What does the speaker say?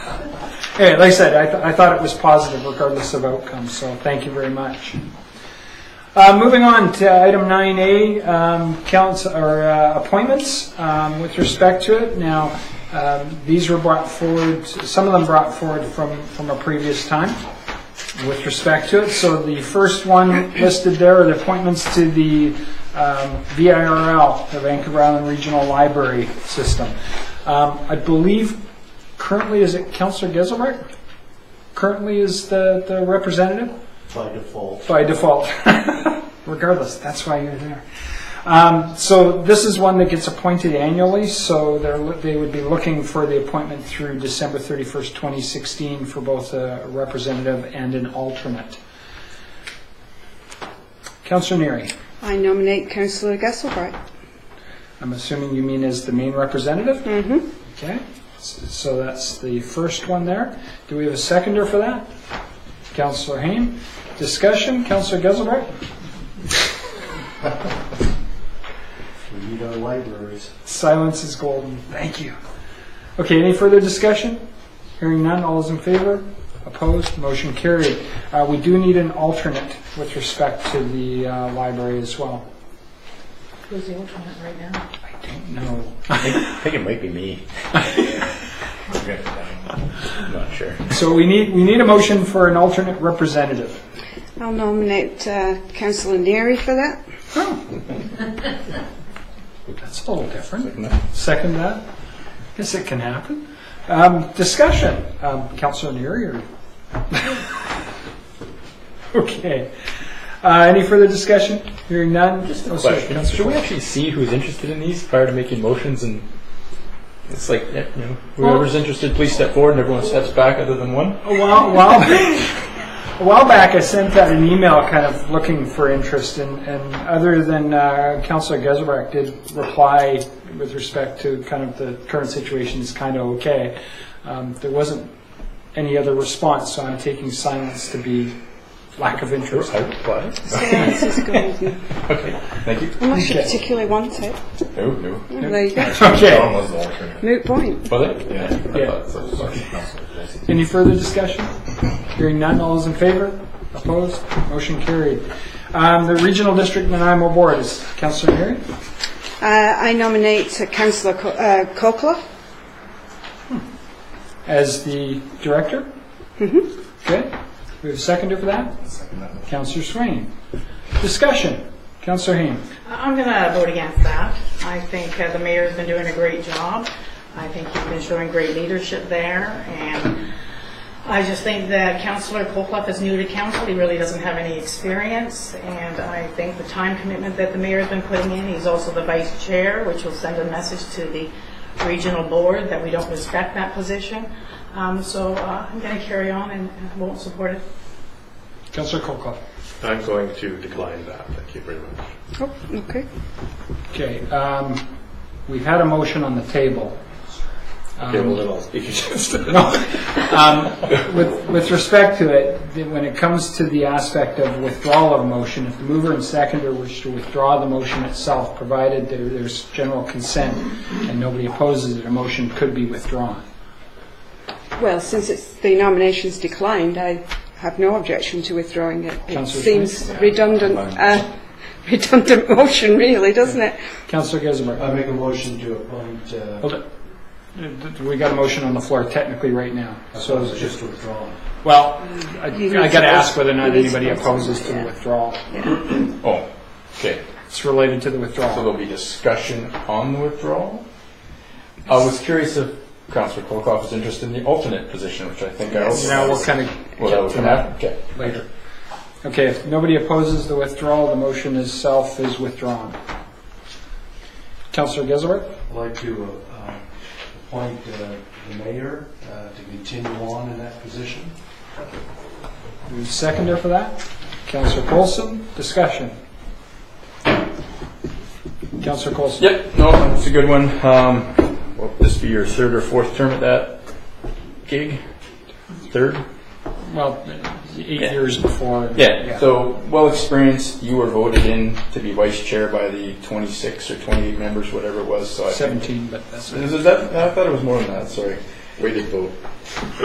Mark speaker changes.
Speaker 1: Anyway, like I said, I, th- I thought it was positive regardless of outcome, so thank you very much. Uh, moving on to item 9A, um, council, or, uh, appointments, um, with respect to it. Now, um, these were brought forward, some of them brought forward from, from a previous time with respect to it. So the first one listed there are the appointments to the um, VIRL, the Vancouver Island Regional Library System. Um, I believe currently, is it Counselor Geselbrecht? Currently is the, the representative?
Speaker 2: by default.
Speaker 1: by default. Regardless, that's why you're there. Um, so this is one that gets appointed annually, so they're, lo- they would be looking for the appointment through December 31st, 2016 for both a representative and an alternate. Councillor Neary,
Speaker 3: I nominate Councillor Gasselbright.
Speaker 1: I'm assuming you mean as the main representative?
Speaker 3: Mm-hmm.
Speaker 1: Okay, S- so that's the first one there. Do we have a seconder for that? Councillor Hain. Discussion, Councillor Geselbrecht?
Speaker 2: We need our libraries.
Speaker 1: Silence is golden. Thank you. Okay, any further discussion? Hearing none, all is in favor? Opposed? Motion carried. Uh, we do need an alternate with respect to the uh, library as well.
Speaker 4: Who's the alternate right now?
Speaker 1: I don't know.
Speaker 5: I think it might be me. I'm not sure.
Speaker 1: So we need, we need a motion for an alternate representative.
Speaker 3: I'll nominate uh, Councillor Neary for that.
Speaker 1: That's a little different. Second that? Guess it can happen. Um, discussion, um, Councilor Neary or? Okay. Uh, any further discussion? Hearing none?
Speaker 5: Just
Speaker 1: Oh,
Speaker 5: a
Speaker 1: sorry,
Speaker 5: question.
Speaker 1: Councilor
Speaker 5: Should we
Speaker 1: Forbes.
Speaker 5: actually see who's interested in these prior to making motions? And it's like, eh, you know, whoever's interested, please step forward, and everyone steps back other than one.
Speaker 1: A while, a while, a while back, I sent out an email kind of looking for interest, and, and other than uh, Councilor Geselbrecht did reply with respect to kind of the current situation is kind of okay, um, there wasn't any other response, so I'm taking silence to be lack of interest.
Speaker 5: What?
Speaker 3: Silence is golden.
Speaker 5: Okay, thank you.
Speaker 3: Unless you
Speaker 1: Okay.
Speaker 3: particularly want it.
Speaker 5: No, no.
Speaker 3: Well, There you go.
Speaker 1: Okay,
Speaker 5: was the alternate.
Speaker 3: Moot point.
Speaker 5: Was it? Yeah.
Speaker 1: Yeah. any further discussion? Hearing none, all those in favor? Opposed? Motion carried. Um, The Regional District Nanaimo Board is Councilor Neary?
Speaker 3: Uh, I nominate uh, Councillor Co- uh, Cochler.
Speaker 1: as the director? Good. We have a seconder for that? Counselor Swain. Discussion. Counselor Hain.
Speaker 4: I'm going to vote against that. I think uh, the mayor's been doing a great job. I think he's been showing great leadership there, and I just think that Councillor Colclough is new to council, he really doesn't have any experience, and I think the time commitment that the mayor's been putting in, he's also the vice chair, which will send a message to the regional board that we don't respect that position. Um, So uh, I'm going to carry on and and won't support it.
Speaker 1: Counselor Colclough.
Speaker 6: I'm going to decline that. Thank you very much.
Speaker 3: Oh, okay.
Speaker 1: Okay, um, we've had a motion on the table. Um, With, with respect to it, the- when it comes to the aspect of withdrawal of a motion, if the mover and seconder wish to withdraw the motion itself, provided there, there's general consent and nobody opposes it, a motion could be withdrawn.
Speaker 3: Well, since it's, the nomination's declined, I have no objection to withdrawing it. It
Speaker 1: Councillor
Speaker 3: seems redundant, uh, redundant motion really, doesn't it?
Speaker 1: Counselor Geselbrecht.
Speaker 2: I make a motion to appoint, uh,
Speaker 1: Hold it. Th- th- We got a motion on the floor technically right now, so,
Speaker 2: so just withdraw.
Speaker 1: well, I
Speaker 3: He's
Speaker 1: I gotta ask
Speaker 3: supposed-
Speaker 1: whether or not
Speaker 3: he's
Speaker 1: anybody
Speaker 3: supposed to,
Speaker 1: opposes to the
Speaker 3: yeah.
Speaker 1: withdrawal.
Speaker 5: Oh, okay.
Speaker 1: It's related to the
Speaker 5: So
Speaker 1: withdrawal.
Speaker 5: there'll be discussion on the withdrawal? I was curious if Councillor Kolkoff is interested in the alternate position, which I think I also.
Speaker 1: Now we'll kind of
Speaker 5: Well, that was
Speaker 1: get to
Speaker 5: gonna
Speaker 1: that
Speaker 5: happen, okay.
Speaker 1: later. Okay, if nobody opposes the withdrawal, the motion itself is withdrawn. Counselor Geselbrecht?
Speaker 2: I'd like to uh, uh, appoint uh, the mayor uh, to continue on in that position.
Speaker 1: Do we seconder for that? Counselor Colson, discussion. Counselor Colson?
Speaker 5: Yep, no, that's a good one. Um, will this be your third or fourth term at that gig? Third?
Speaker 1: Well, eight
Speaker 5: Yeah.
Speaker 1: years before.
Speaker 5: Yeah, so well experienced. You were voted in to be vice chair by the 26 or 28 members, whatever it was, so I think.
Speaker 1: 17, but that's.
Speaker 5: Is it that, I thought it was more than that, sorry. Weighted vote.